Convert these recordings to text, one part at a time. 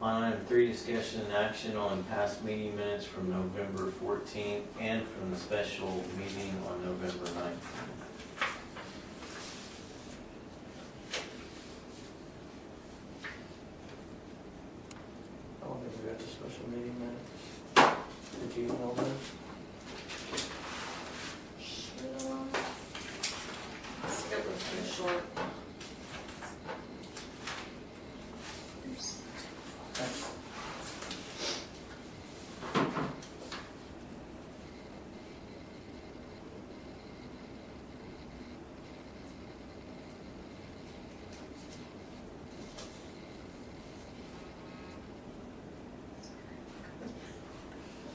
On item three, discussion and action on past meeting minutes from November fourteenth and from the special meeting on November nineteenth. I don't think we got the special meeting minutes. Did you know that? Skip was too short.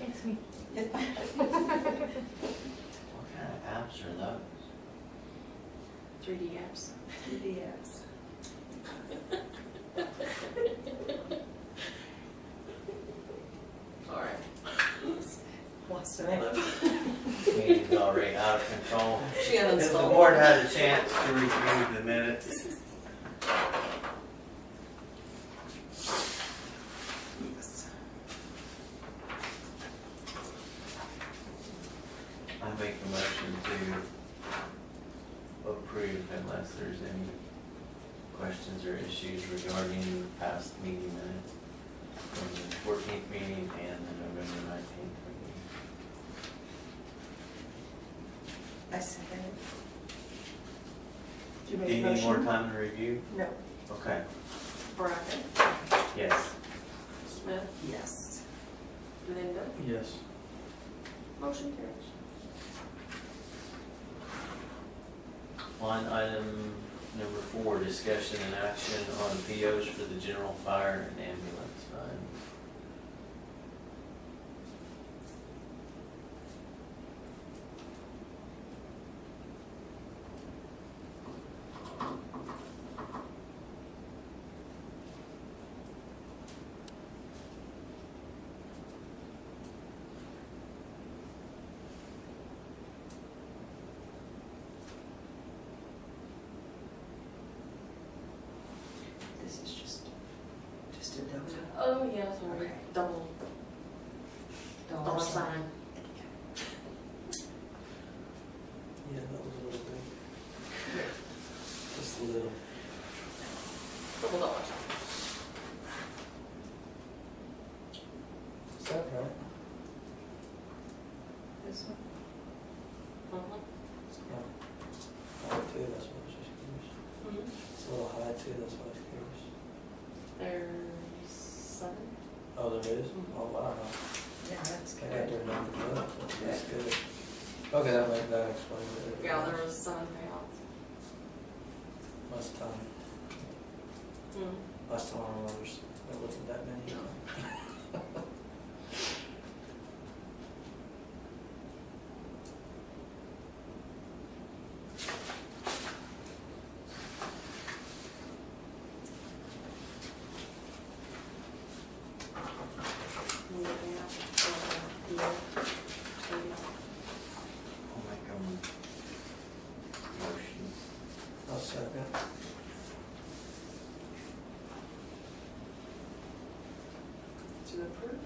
It's me. What kind of apps are those? Three D apps. Three D apps. All right. Wants to live. Meeting's already out of control. She If the uninstalled. board had a chance to review the minutes, I make the motion to approve unless there's any questions or issues regarding the past meeting minutes from the fourteenth meeting and the November nineteenth meeting. I second it. Do you Do make you a need more motion? time to review? No. Okay, Bracken, yes. Smith, Yes. Linda, Yes. motion carries. On item number four, discussion and action on POs for the general fire and ambulance fund. This is just, just a double. Oh, yeah, sorry, Okay. double. Dollar sign. Yeah, that was a little big. Just a little. Double dollar sign. Is that right? This one? No. High too, that's what I was just curious. Mhm. Mhm. It's a little high too, that's what I was curious. There's seven. Oh, there is? Mhm. Oh, wow. Yeah, that's I got good. their number, up. that's good. Okay, that might, that explains it. Yeah, there was seven payouts. Last time, last time I was, there wasn't that many. Moving out, uh, yeah, maybe. I'll make a motion. I'll second. To approve?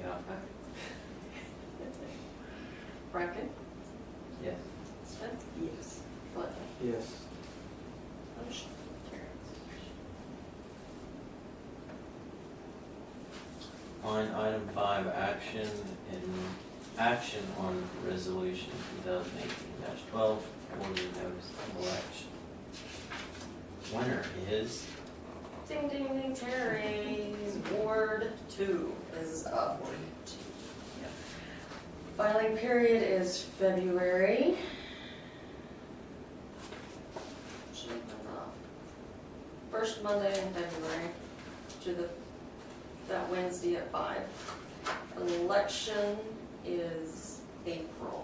Yeah, Bracken, yes. Smith, Yes. Litton. Yes. Motion carries. On item five, action in, action on resolution two thousand eighteen twelve, order notice of election. Winner is, Ding, ding, ding, Terry's Ward two is up. Ward two. Yep. Filing period is February. Should have been up. First Monday in February to the, that Wednesday at five. Election is April.